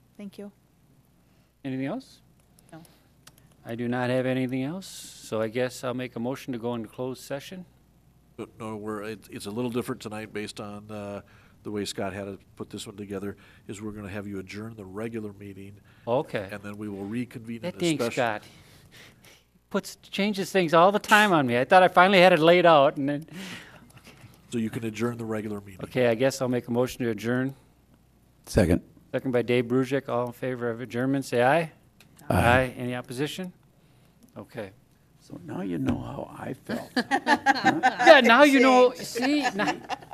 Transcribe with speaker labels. Speaker 1: Thank you.
Speaker 2: Anything else?
Speaker 1: No.
Speaker 2: I do not have anything else, so I guess I'll make a motion to go into closed session.
Speaker 3: But no, we're, it- it's a little different tonight based on uh, the way Scott had to put this one together, is we're going to have you adjourn the regular meeting,
Speaker 2: Okay.
Speaker 3: and then we will reconvene in
Speaker 2: That
Speaker 3: a
Speaker 2: thing,
Speaker 3: special.
Speaker 2: Scott. Puts, changes things all the time on me. I thought I finally had it laid out and then,
Speaker 3: So you can adjourn the regular meeting.
Speaker 2: okay, I guess I'll make a motion to adjourn.
Speaker 4: Second.
Speaker 2: Second by Dave Brusick, all in favor of adjournment, say aye. Aye. Any opposition? Okay.
Speaker 4: So now you know how I felt.
Speaker 2: Yeah, now you know, see, now.